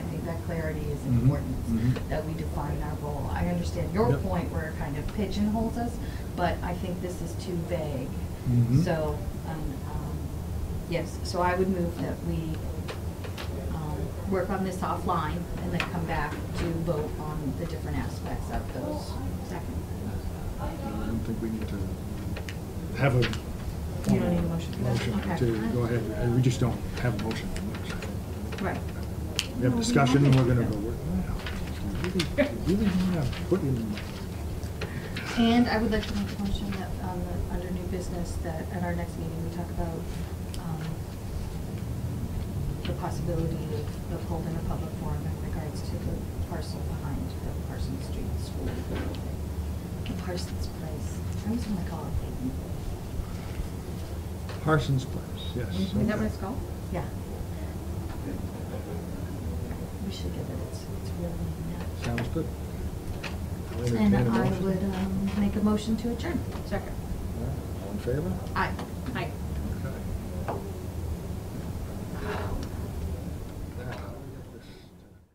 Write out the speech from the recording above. clarity is Mhm, important, mhm. that we define our role. I understand your Yep. point where it kind of pigeonholes us, but I think this is too vague. Mhm. So, um, um, yes, so I would move that we um, work on this offline and then come back to vote on the different aspects of those. Second. I don't think we need to have a. You don't need a motion for that? Okay. Motion to go ahead, and we just don't have a motion. Right. We have discussion, and we're gonna go, "Well, yeah, we really, really wanna put in, And I would like to make a motion that on the, under new business, that at our next meeting, we talk about, um, the possibility of- of holding a public forum in regards to the parcel behind the Parsons Street School. The Parsons Place. I was gonna call it Peyton. Parsons Place, yes. Mm-hmm. Is that what okay. it's called? Yeah. We should give it, it's, it's really nuts. Sounds good. I'll And entertain a I uh, motion. would, um, make a motion to adjourn. Second. All right, All in favor? Aye. uh,